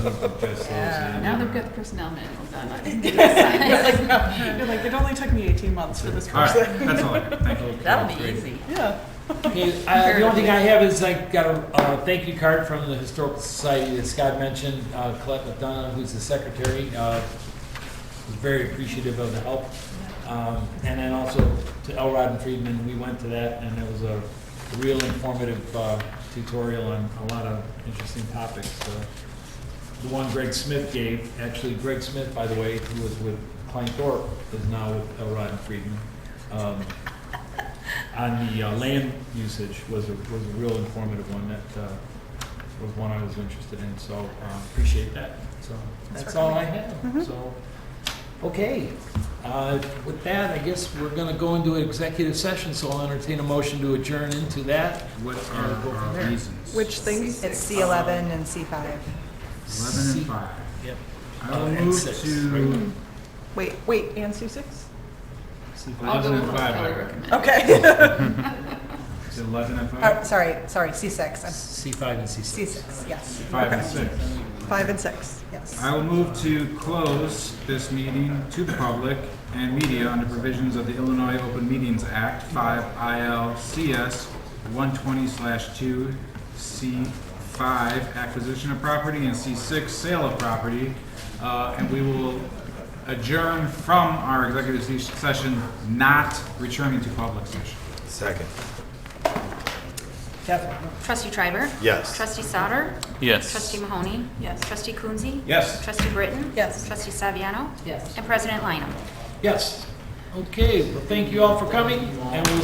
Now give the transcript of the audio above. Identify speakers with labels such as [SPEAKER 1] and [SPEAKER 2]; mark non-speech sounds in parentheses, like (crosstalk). [SPEAKER 1] Now they've got the personnel manual done.
[SPEAKER 2] (laughs)
[SPEAKER 1] I didn't get
[SPEAKER 2] You're
[SPEAKER 1] it
[SPEAKER 2] like, no. (laughs) You're like, it only took me 18 months for this
[SPEAKER 3] All right,
[SPEAKER 2] person.
[SPEAKER 3] that's all I
[SPEAKER 2] (laughs)
[SPEAKER 3] got. Thank you.
[SPEAKER 4] That'll be easy.
[SPEAKER 2] Yeah.
[SPEAKER 5] Okay, uh, the only thing I have is I got a, uh thank you card from the Historical Society that Scott mentioned, uh, Colette McDonough, who's the secretary, uh, was very appreciative of the help. Um, and then also to Elrod and Friedman, we went to that and it was a real informative, uh, tutorial on a lot of interesting topics, so. The one Greg Smith gave, actually Greg Smith, by the way, who was with Klein Thorpe, is now with Elrod and Friedman. Um, on the uh, land usage was a, was a real informative one that uh, was one I was interested in, so um, appreciate that. So that's all I
[SPEAKER 6] Mm-hmm.
[SPEAKER 5] have, so, okay. Uh, With that, I guess we're gonna go into an executive session, so I'll entertain a motion to adjourn into that.
[SPEAKER 3] What
[SPEAKER 5] Gotta go
[SPEAKER 3] are
[SPEAKER 5] from
[SPEAKER 3] our
[SPEAKER 5] there.
[SPEAKER 3] reasons?
[SPEAKER 2] Which things?
[SPEAKER 6] It's C eleven and C five.
[SPEAKER 3] Eleven and five.
[SPEAKER 5] Yep.
[SPEAKER 3] I will
[SPEAKER 5] Oh, and
[SPEAKER 3] move
[SPEAKER 5] six,
[SPEAKER 3] to
[SPEAKER 2] Wait, wait, and C6?
[SPEAKER 5] See if I-
[SPEAKER 1] I'll go
[SPEAKER 3] eleven
[SPEAKER 1] with
[SPEAKER 3] and
[SPEAKER 1] what
[SPEAKER 3] five.
[SPEAKER 1] Kelly
[SPEAKER 3] I reckon.
[SPEAKER 1] recommended.
[SPEAKER 2] (laughs) Okay.
[SPEAKER 3] Is it Eleven and
[SPEAKER 6] Oh,
[SPEAKER 1] Uh,
[SPEAKER 3] five?
[SPEAKER 6] sorry, sorry, C six. I'm
[SPEAKER 5] C5 and C6.
[SPEAKER 6] C six, yes.
[SPEAKER 3] Five and six.
[SPEAKER 2] Five and six.
[SPEAKER 6] Yes.
[SPEAKER 3] I will move to close this meeting to the public and media under provisions of the Illinois Open Meetings Act, five ILCS one twenty two, C five, acquisition of property, and C six, sale of property. Uh, and we will adjourn from our executive se- session, not returning to public session.
[SPEAKER 7] Second.
[SPEAKER 8] Trustee Triber?
[SPEAKER 7] Yes.
[SPEAKER 8] Trustee Sauter?
[SPEAKER 9] Yes.
[SPEAKER 8] Trustee Mahoney?
[SPEAKER 2] Yes.
[SPEAKER 8] Trustee Coonsey?
[SPEAKER 3] Yes.
[SPEAKER 8] Trustee Britton?
[SPEAKER 6] Yes.
[SPEAKER 8] Trustee Saviano?
[SPEAKER 1] Yes.
[SPEAKER 8] And President Lineham?
[SPEAKER 5] Yes. Okay, well, thank you all for coming, and we'll